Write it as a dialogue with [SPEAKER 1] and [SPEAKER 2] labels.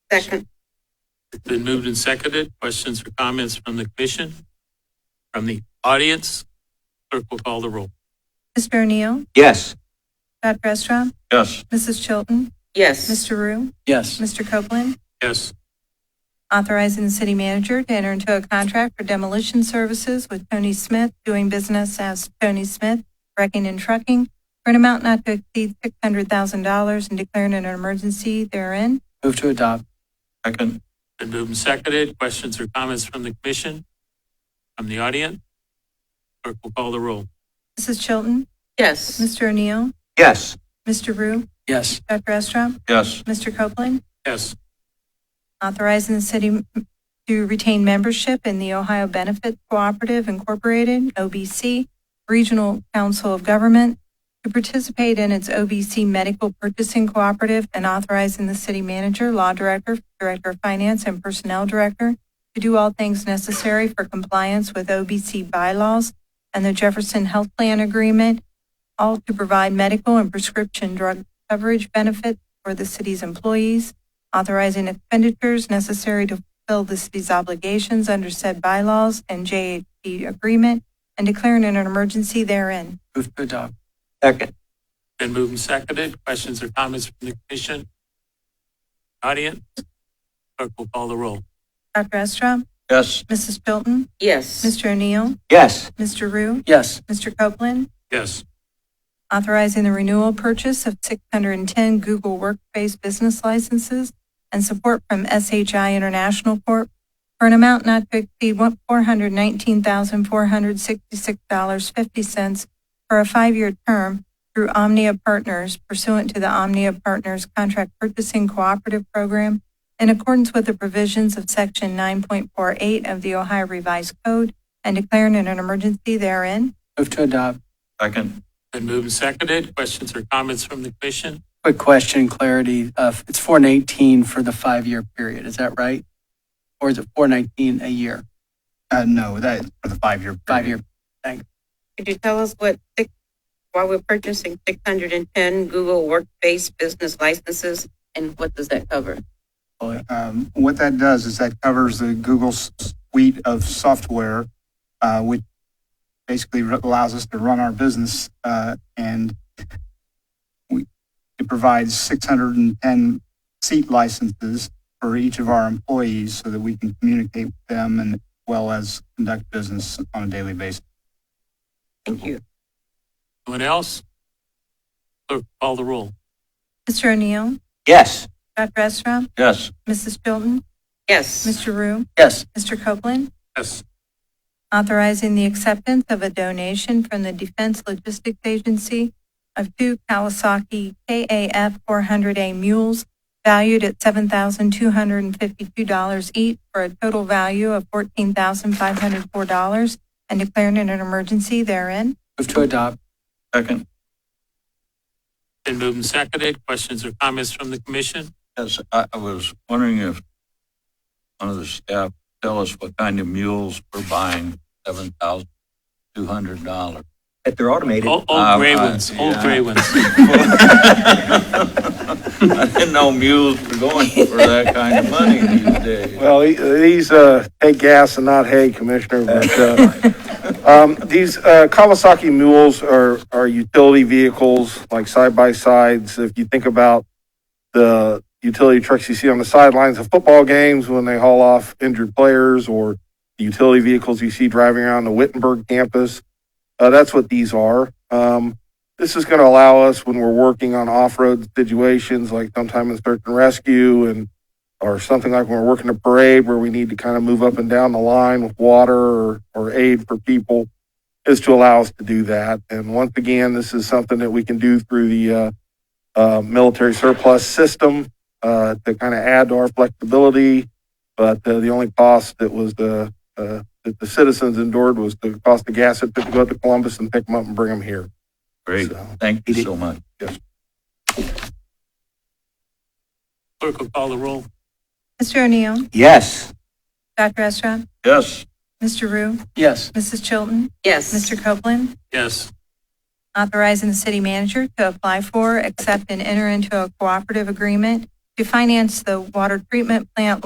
[SPEAKER 1] Second.
[SPEAKER 2] Been moved and seconded. Questions or comments from the commission? From the audience? Clerk will call the roll.
[SPEAKER 3] Mr. O'Neill,
[SPEAKER 4] Yes.
[SPEAKER 3] Dr. Estroff,
[SPEAKER 4] Yes.
[SPEAKER 3] Mrs. Chilton,
[SPEAKER 1] Yes.
[SPEAKER 3] Mr. Rue,
[SPEAKER 4] Yes.
[SPEAKER 3] Mr. Copeland,
[SPEAKER 2] Yes.
[SPEAKER 3] authorizing the city manager to enter into a contract for demolition services with Tony Smith, doing business as Tony Smith, wrecking and trucking, for an amount not to exceed $600,000 and declaring an emergency therein.
[SPEAKER 4] Move to adopt. Second.
[SPEAKER 2] Been moved and seconded. Questions or comments from the commission? From the audience? Clerk will call the roll.
[SPEAKER 3] Mrs. Chilton,
[SPEAKER 1] Yes.
[SPEAKER 3] Mr. O'Neill,
[SPEAKER 4] Yes.
[SPEAKER 3] Mr. Rue,
[SPEAKER 4] Yes.
[SPEAKER 3] Dr. Estroff,
[SPEAKER 4] Yes.
[SPEAKER 3] Mr. Copeland,
[SPEAKER 2] Yes.
[SPEAKER 3] authorizing the city m- to retain membership in the Ohio Benefit Cooperative Incorporated, OBC, Regional Council of Government, to participate in its OBC Medical Purchasing Cooperative, and authorizing the city manager, law director, director of finance, and personnel director to do all things necessary for compliance with OBC bylaws and the Jefferson Health Plan Agreement, all to provide medical and prescription drug coverage benefits for the city's employees, authorizing expenditures necessary to fulfill the city's obligations under said bylaws and JHD agreement, and declaring an emergency therein.
[SPEAKER 4] Move to adopt. Second.
[SPEAKER 2] Been moved and seconded. Questions or comments from the commission? Audience? Clerk will call the roll.
[SPEAKER 3] Dr. Estra,
[SPEAKER 4] Yes.
[SPEAKER 3] Mrs. Chilton,
[SPEAKER 1] Yes.
[SPEAKER 3] Mr. O'Neill,
[SPEAKER 4] Yes.
[SPEAKER 3] Mr. Rue,
[SPEAKER 4] Yes.
[SPEAKER 3] Mr. Copeland,
[SPEAKER 2] Yes.
[SPEAKER 3] authorizing the renewal purchase of 610 Google Workspace business licenses and support from SHI International Corp. for an amount not to exceed one- $419,466.50 for a five-year term through Omnia Partners pursuant to the Omnia Partners Contract Purchasing Cooperative Program in accordance with the provisions of Section 9.48 of the Ohio Revised Code and declaring an emergency therein.
[SPEAKER 4] Move to adopt. Second.
[SPEAKER 2] Been moved and seconded. Questions or comments from the commission?
[SPEAKER 5] Quick question, clarity. Uh, It's 419 for the five-year period, is that right? Or is it 419 a year,
[SPEAKER 6] Uh, no, that for the five-year.
[SPEAKER 5] five-year?
[SPEAKER 1] Could you tell us what, six- why we're purchasing six hundred and ten Google Workspace business licenses and what does that cover?
[SPEAKER 6] period. Um, what that does is that covers the Google suite of software, uh, which basically r- allows us to run our business, uh, and we, it provides six hundred and ten seat licenses for each of our employees so that we can communicate with them and well as conduct business on a daily basis.
[SPEAKER 1] Thank you.
[SPEAKER 2] Anyone else? Clerk will call the roll.
[SPEAKER 3] Mr. O'Neill,
[SPEAKER 4] Yes.
[SPEAKER 3] Dr. Esra,
[SPEAKER 4] Yes.
[SPEAKER 3] Mrs. Chilton,
[SPEAKER 1] Yes.
[SPEAKER 3] Mr. Rue,
[SPEAKER 5] Yes,
[SPEAKER 3] Mr. Copeland,
[SPEAKER 2] Yes.
[SPEAKER 3] authorizing the acceptance of a donation from the Defense Logistics Agency of two Kawasaki KAF 400A mules valued at $7,252 each for a total value of $14,504 and declaring an emergency therein.
[SPEAKER 5] move to adopt.
[SPEAKER 4] Second.
[SPEAKER 2] Been moved and seconded. Questions or comments from the commission?
[SPEAKER 4] Yes, I, I was wondering if one of the staff tell us what kind of mules we're buying, seven thousand two hundred dollars.
[SPEAKER 7] If they're automated,
[SPEAKER 2] Old, old
[SPEAKER 4] Um,
[SPEAKER 2] gray
[SPEAKER 4] I-
[SPEAKER 2] ones, old
[SPEAKER 4] yeah.
[SPEAKER 2] gray ones.
[SPEAKER 4] I didn't know mules were going for that kind of money these days.
[SPEAKER 8] Well, these, uh, hey, gas and not hay, Commissioner, but, uh, um, these, uh, Kawasaki mules are, are utility vehicles, like side-by-sides. If you think about the utility trucks you see on the sidelines of football games when they haul off injured players or the utility vehicles you see driving around the Wittenberg campus, uh, that's what these are. Um, this is gonna allow us when we're working on off-road situations, like sometime in search and rescue and or something like when we're working a parade where we need to kind of move up and down the line with water or, or aid for people is to allow us to do that. And once again, this is something that we can do through the, uh, uh, military surplus system, uh, to kind of add to our flexibility. But uh, the only cost that was the, uh, that the citizens endured was the cost of gas that took to go to Columbus and pick them up and bring them here.
[SPEAKER 4] Great,
[SPEAKER 8] So-
[SPEAKER 4] thank you so much.
[SPEAKER 2] Clerk will call the roll.
[SPEAKER 3] Mr. O'Neill,
[SPEAKER 4] Yes.
[SPEAKER 3] Dr. Esra,
[SPEAKER 4] Yes.
[SPEAKER 3] Mr. Rue,
[SPEAKER 5] Yes,
[SPEAKER 3] Mrs. Chilton,
[SPEAKER 1] Yes.
[SPEAKER 3] Mr. Copeland,
[SPEAKER 2] Yes.
[SPEAKER 3] authorizing the city manager to apply for, accept, and enter into a cooperative agreement to finance the water treatment plant